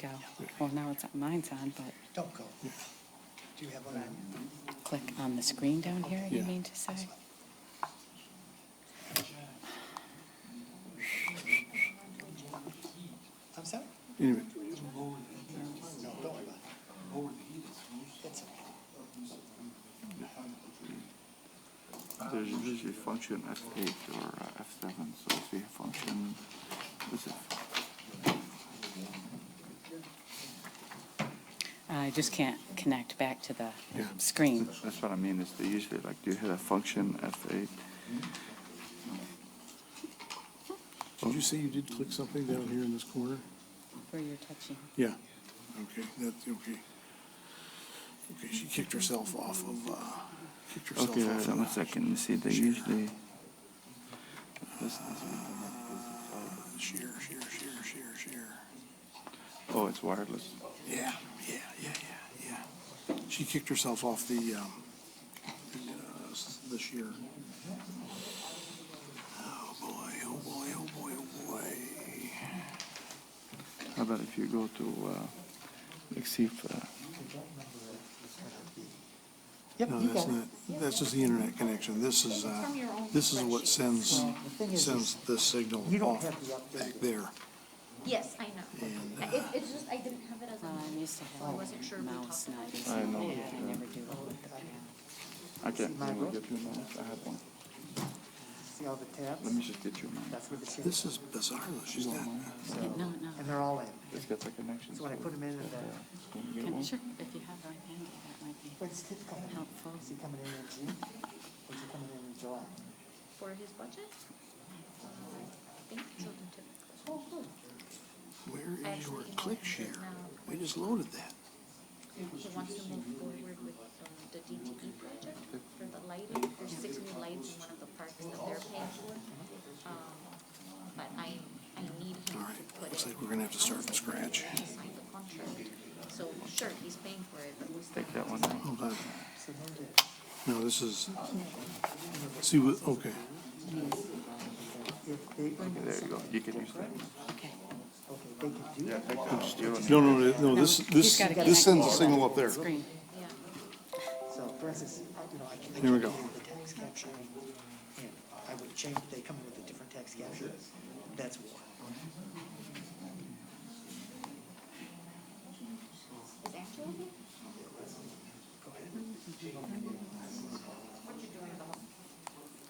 go. Well, now it's, mine's on, but Don't go. Do you have one on you? click on the screen down here, you Yeah. mean to say? I'm sorry? Anyway, No, don't worry about it. It's okay. There's usually function F8 or uh, F7, so if you have function, this is, I just can't connect back to the Yeah. screen. that's what I mean, is they usually, like, you hit a function F8. did you say you did click something down here in this corner? Where you're touching. Yeah. Okay, that's, okay. Okay, she kicked herself off of, uh, kicked herself Okay, off. so of one the- second, you see, they usually, Share, share, share, share, share. oh, it's wireless. Yeah, yeah, yeah, yeah, yeah. She kicked herself off the, um, the, uh, s- the shear. Oh, boy, oh, boy, oh, boy, oh, boy. How about if you go to, uh, like, see if, uh, Yep, No, you that's got it. not, that's just the internet connection. This is, uh, this is what sends, the thing is, sends the signal you don't off have the update. back there. Yes, I know. And, It, it's just, I didn't have it as Well, a, I'm Uh, used to I having wasn't sure if we mouse, talked not about it. used to I it. know, I yeah. never do it with the pad. I can't, let me get your mouse, I have one. See all the Let tabs? me just get your mouse. That's where the shit, This is bizarre, though. she's not, No, no. and they're all in. It's got the connection. So when I put them in, at the- Can you get Can- one? Sure, if you have right handy, that might be when's Tip coming in? helpful. Is he coming in in June? Or is he coming in in July? for his budget. I think children typically. I where is Oh, your actually emailed click him share? just now. We just loaded that. Oh, He wants to move forward with um, the DTE project for the lighting. There's six new lights in one of the parks that they're paying for. Um, But I, I need him All to right, put it. looks like we're gonna have to start from scratch. He signed the contract. So sure, he's paying for it, but we still Take that one. Hold on. So no Oh, did. No, this is, see, what- okay, If they bring There you go, you can use that. Okay. okay, they can do Yeah, it. take that. You don't no, no, no, No, no, this, he's this, gotta connect this sends a to signal the up there. Screen. Yeah. So for instance, I- you know, I can. Here we go. The tax capture, and I would change, they come in with a different tax capture. That's war. Is Angela here?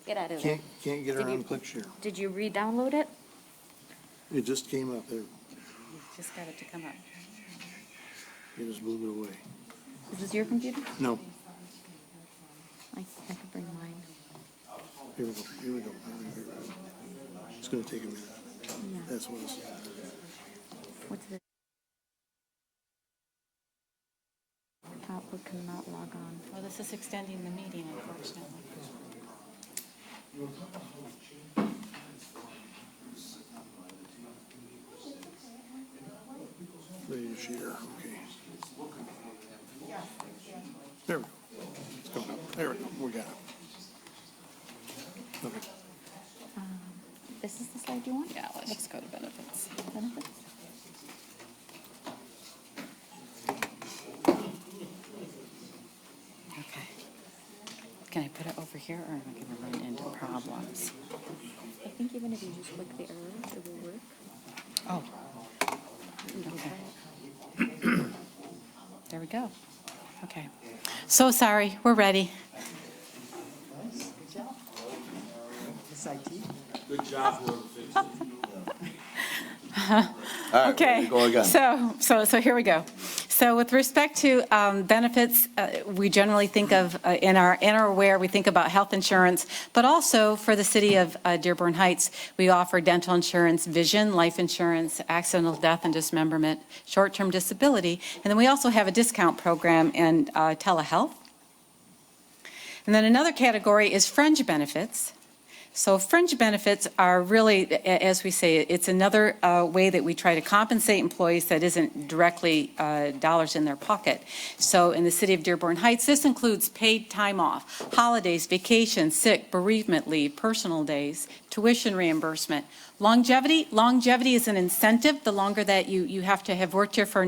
Get out of there. Can't, can't get around click share. Did you re-download it? It just came up there, You just got it to come up. it just blew it away. Is this your computer? No, I, I could bring mine. here we go, here we go. Here we go. It's gonna take a minute. That's what it's, What's this? Outlook cannot log on. Well, this is extending the meeting unfortunately. ready to share, okay. There we go. It's going up, there we go, we got it. Okay. This is the slide you want? Yeah, let's just go to benefits. Benefits? Okay. Can I put it over here or am I gonna run into problems? I think even if you just click the arrow, it will work. Oh. Okay. There we go. Okay. So sorry, we're ready. Nice, good job. Miss IT, Okay. So, so, so here we go. So with respect to um, benefits, uh, we generally think of, uh, in our, in our aware, we think about health insurance, but also for the city of uh, Dearborn Heights, we offer dental insurance, vision, life insurance, accidental death and dismemberment, short-term disability, and then we also have a discount program and uh, telehealth. And then another category is fringe benefits. So fringe benefits are really, a- as we say, it's another uh, way that we try to compensate employees that isn't directly uh, dollars in their pocket. So in the city of Dearborn Heights, this includes paid time off, holidays, vacation, sick, bereavement leave, personal days, tuition reimbursement. Longevity, longevity is an incentive. The longer that you, you have to have worked here for a